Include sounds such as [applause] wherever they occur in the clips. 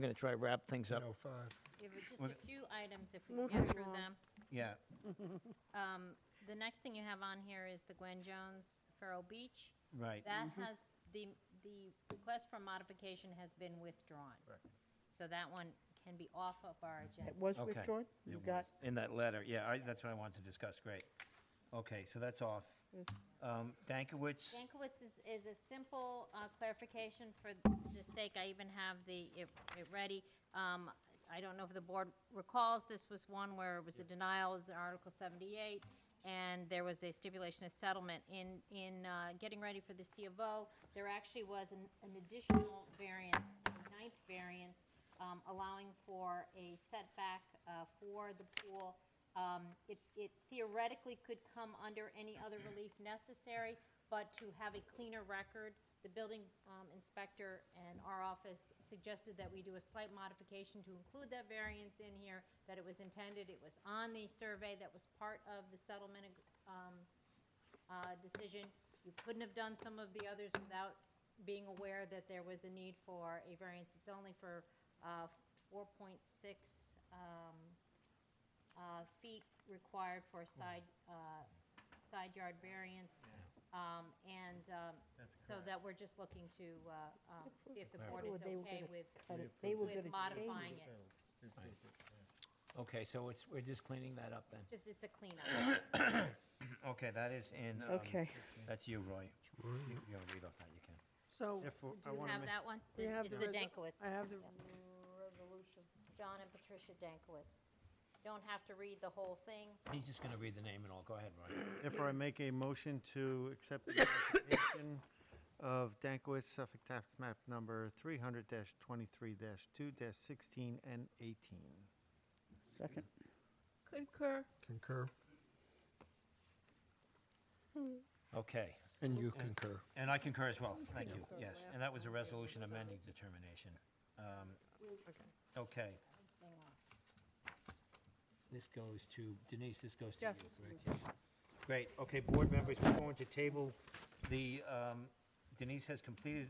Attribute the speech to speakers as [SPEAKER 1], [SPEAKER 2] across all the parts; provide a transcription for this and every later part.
[SPEAKER 1] I'm going to try to wrap things up.
[SPEAKER 2] 105.
[SPEAKER 3] Give it just
[SPEAKER 1] Well-
[SPEAKER 3] a few items if we can get through them.
[SPEAKER 1] Yeah,
[SPEAKER 3] [laughs] Um, The next thing you have on here is the Gwen Jones Farrow Beach.
[SPEAKER 1] right.
[SPEAKER 3] That has, the, the request for modification has been withdrawn. So that one can be off of our agenda.
[SPEAKER 4] It was
[SPEAKER 1] Okay.
[SPEAKER 4] withdrawn? You
[SPEAKER 1] It
[SPEAKER 4] got,
[SPEAKER 1] was In that letter, yeah, I, that's what I wanted to discuss, great. Okay, so that's off.
[SPEAKER 4] Yes.
[SPEAKER 1] Um, Dankowitz,
[SPEAKER 3] Jankowitz is, is a simple uh, clarification for the sake, I even have the, it, it ready. Um, I don't know if the board recalls, this was one where it was a denial, it was in Article seventy-eight, and there was a stipulation of settlement. In, in, uh, getting ready for the C of O, there actually was an, an additional variance, a ninth variance, um, allowing for a setback, uh, for the pool. Um, it, it theoretically could come under any other relief necessary, but to have a cleaner record, the building um, inspector and our office suggested that we do a slight modification to include that variance in here, that it was intended, it was on the survey that was part of the settlement ag- um, uh, decision. You couldn't have done some of the others without being aware that there was a need for a variance. It's only for uh, 4.6 um, uh, feet required for a side, uh, side yard variance. Um, And um, so that we're just looking to uh, um, see if the board is
[SPEAKER 4] Well, they were
[SPEAKER 3] okay
[SPEAKER 4] gonna
[SPEAKER 3] with,
[SPEAKER 4] but it- they were
[SPEAKER 3] with
[SPEAKER 4] going to
[SPEAKER 3] modifying it.
[SPEAKER 1] okay, so it's, we're just cleaning that up then.
[SPEAKER 3] Just, it's a cleanup.
[SPEAKER 1] Okay, that is in, um,
[SPEAKER 4] Okay,
[SPEAKER 1] that's you, Roy. You you wanna read off that, you can.
[SPEAKER 5] So
[SPEAKER 2] Therefore,
[SPEAKER 3] Do you have that one?
[SPEAKER 5] We have
[SPEAKER 3] It's
[SPEAKER 5] the
[SPEAKER 3] the
[SPEAKER 5] resol-
[SPEAKER 3] Dankowitz.
[SPEAKER 5] I have the
[SPEAKER 3] Yep.
[SPEAKER 5] resolution.
[SPEAKER 3] John and Patricia Dankowitz. Don't have to read the whole thing.
[SPEAKER 1] He's just going to read the name and all, go ahead, Roy. [clears throat]
[SPEAKER 6] Therefore, I make a motion to accept the application of Dankowitz Suffolk Tax Map Number 300-23-2-16 and 18.
[SPEAKER 4] second.
[SPEAKER 5] Concur.
[SPEAKER 2] Concur.
[SPEAKER 1] Okay,
[SPEAKER 2] And you concur.
[SPEAKER 1] and I concur as well, thank you, yes. And that was a resolution amending determination. Um, Okay,
[SPEAKER 3] Hang on.
[SPEAKER 1] this goes to, Denise, this goes to you,
[SPEAKER 5] Yes.
[SPEAKER 1] correct? Great, okay, board members, we're going to table the, um, Denise has completed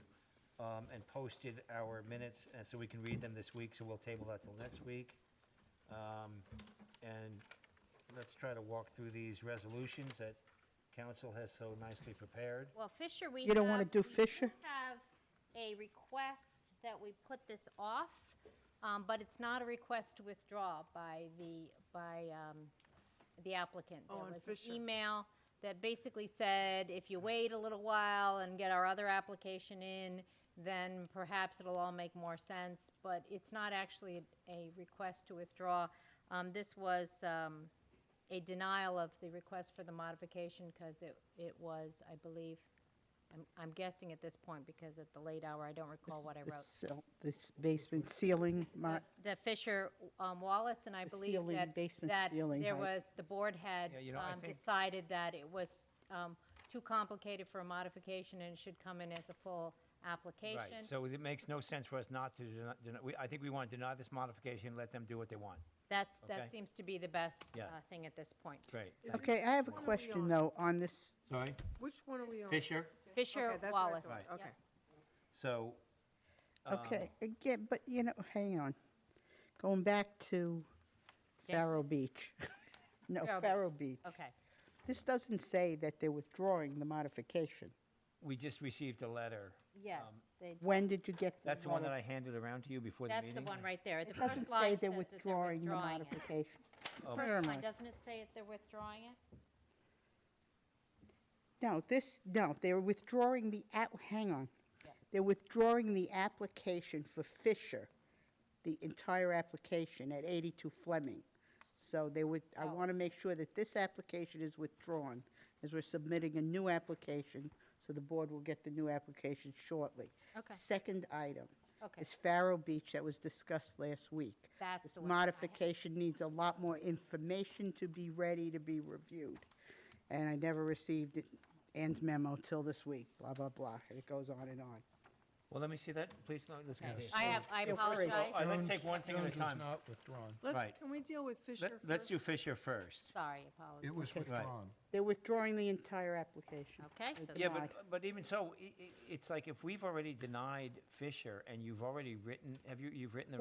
[SPEAKER 1] um, and posted our minutes, and so we can read them this week, so we'll table that till next week. Um, And let's try to walk through these resolutions that council has so nicely prepared.
[SPEAKER 3] Well, Fisher, we
[SPEAKER 4] You don't wanna
[SPEAKER 3] have-
[SPEAKER 4] do
[SPEAKER 3] we
[SPEAKER 4] Fisher?
[SPEAKER 3] have a request that we put this off, um, but it's not a request to withdraw by the, by um, the applicant.
[SPEAKER 5] Oh, on
[SPEAKER 3] There was
[SPEAKER 5] Fisher.
[SPEAKER 3] an email that basically said, if you wait a little while and get our other application in, then perhaps it'll all make more sense, but it's not actually a request to withdraw. Um, This was um, a denial of the request for the modification because it, it was, I believe, I'm, I'm guessing at this point because at the late hour, I don't recall what I
[SPEAKER 4] The
[SPEAKER 3] wrote.
[SPEAKER 4] cell- This basement ceiling, mar-
[SPEAKER 3] The Fisher um, Wallace, and I
[SPEAKER 4] The
[SPEAKER 3] believe
[SPEAKER 4] ceiling,
[SPEAKER 3] that,
[SPEAKER 4] basement
[SPEAKER 3] that
[SPEAKER 4] ceiling
[SPEAKER 3] there
[SPEAKER 4] height.
[SPEAKER 3] was, the board had
[SPEAKER 1] Yeah, you know, I
[SPEAKER 3] um,
[SPEAKER 1] think-
[SPEAKER 3] decided that it was um, too complicated for a modification and it should come in as a full application.
[SPEAKER 1] Right, so it makes no sense for us not to, deny- deny- we- I think we want to deny this modification, let them do what they want.
[SPEAKER 3] That's,
[SPEAKER 1] Okay.
[SPEAKER 3] that seems to be the best
[SPEAKER 1] Yeah.
[SPEAKER 3] uh, thing at this point.
[SPEAKER 1] Great.
[SPEAKER 5] Is it-
[SPEAKER 4] Okay, I have a
[SPEAKER 5] Which one are we
[SPEAKER 4] question,
[SPEAKER 5] on?
[SPEAKER 4] though, on this,
[SPEAKER 1] Sorry?
[SPEAKER 5] Which one are we on?
[SPEAKER 1] Fisher?
[SPEAKER 3] Fisher
[SPEAKER 5] Okay, that's what I
[SPEAKER 3] Wallace.
[SPEAKER 5] thought.
[SPEAKER 1] Right.
[SPEAKER 5] Okay.
[SPEAKER 1] So. um,
[SPEAKER 4] okay, again, but, you know, hang on. Going back to
[SPEAKER 3] Dan-
[SPEAKER 4] Farrow Beach. [laughs] No,
[SPEAKER 3] Farrow Beach.
[SPEAKER 4] Farrow Beach.
[SPEAKER 3] Okay,
[SPEAKER 4] This doesn't say that they're withdrawing the modification.
[SPEAKER 1] We just received a letter.
[SPEAKER 3] yes.
[SPEAKER 1] Um,
[SPEAKER 3] they-
[SPEAKER 4] When did you get?
[SPEAKER 1] That's the one that
[SPEAKER 4] letter?
[SPEAKER 1] I handed around to you before the
[SPEAKER 3] That's
[SPEAKER 1] meeting?
[SPEAKER 3] the one right there. The
[SPEAKER 4] It
[SPEAKER 3] first
[SPEAKER 4] doesn't say
[SPEAKER 3] line
[SPEAKER 4] they're
[SPEAKER 3] says that they're
[SPEAKER 4] withdrawing the
[SPEAKER 3] withdrawing it.
[SPEAKER 4] modification.
[SPEAKER 1] Oh.
[SPEAKER 4] Where
[SPEAKER 3] First
[SPEAKER 4] am
[SPEAKER 3] line,
[SPEAKER 4] I?
[SPEAKER 3] doesn't it say that they're withdrawing it?
[SPEAKER 4] No, this, no, they're withdrawing the, app- hang on. They're withdrawing the application for Fisher, the entire application at 82 Fleming. So they would, I
[SPEAKER 3] Oh.
[SPEAKER 4] want to make sure that this application is withdrawn, as we're submitting a new application, so the board will get the new application shortly.
[SPEAKER 3] Okay.
[SPEAKER 4] Second item
[SPEAKER 3] Okay,
[SPEAKER 4] is Farrow Beach that was discussed last week.
[SPEAKER 3] that's
[SPEAKER 4] This
[SPEAKER 3] the one. I had.
[SPEAKER 4] modification needs a lot more information to be ready to be reviewed. And I never received it- Ann's memo till this week, blah, blah, blah, and it goes on and on.
[SPEAKER 1] Well, let me see that, please, no, let's
[SPEAKER 3] Okay.
[SPEAKER 1] continue.
[SPEAKER 3] I have, I
[SPEAKER 4] Feel free.
[SPEAKER 3] apologize.
[SPEAKER 1] All right, let's take one thing at a
[SPEAKER 2] Jones was
[SPEAKER 1] time.
[SPEAKER 2] not withdrawn.
[SPEAKER 5] Let's,
[SPEAKER 1] Right.
[SPEAKER 5] can we deal with
[SPEAKER 1] Let-
[SPEAKER 5] Fisher first?
[SPEAKER 1] Let's do Fisher first.
[SPEAKER 3] Sorry, apologies.
[SPEAKER 2] It was withdrawn.
[SPEAKER 4] They're withdrawing the entire application.
[SPEAKER 3] Okay, so
[SPEAKER 1] Yeah,
[SPEAKER 3] the-
[SPEAKER 1] but,
[SPEAKER 4] Denied.
[SPEAKER 1] but even so, i- i- it's like if we've already denied Fisher and you've already written, have you, you've written the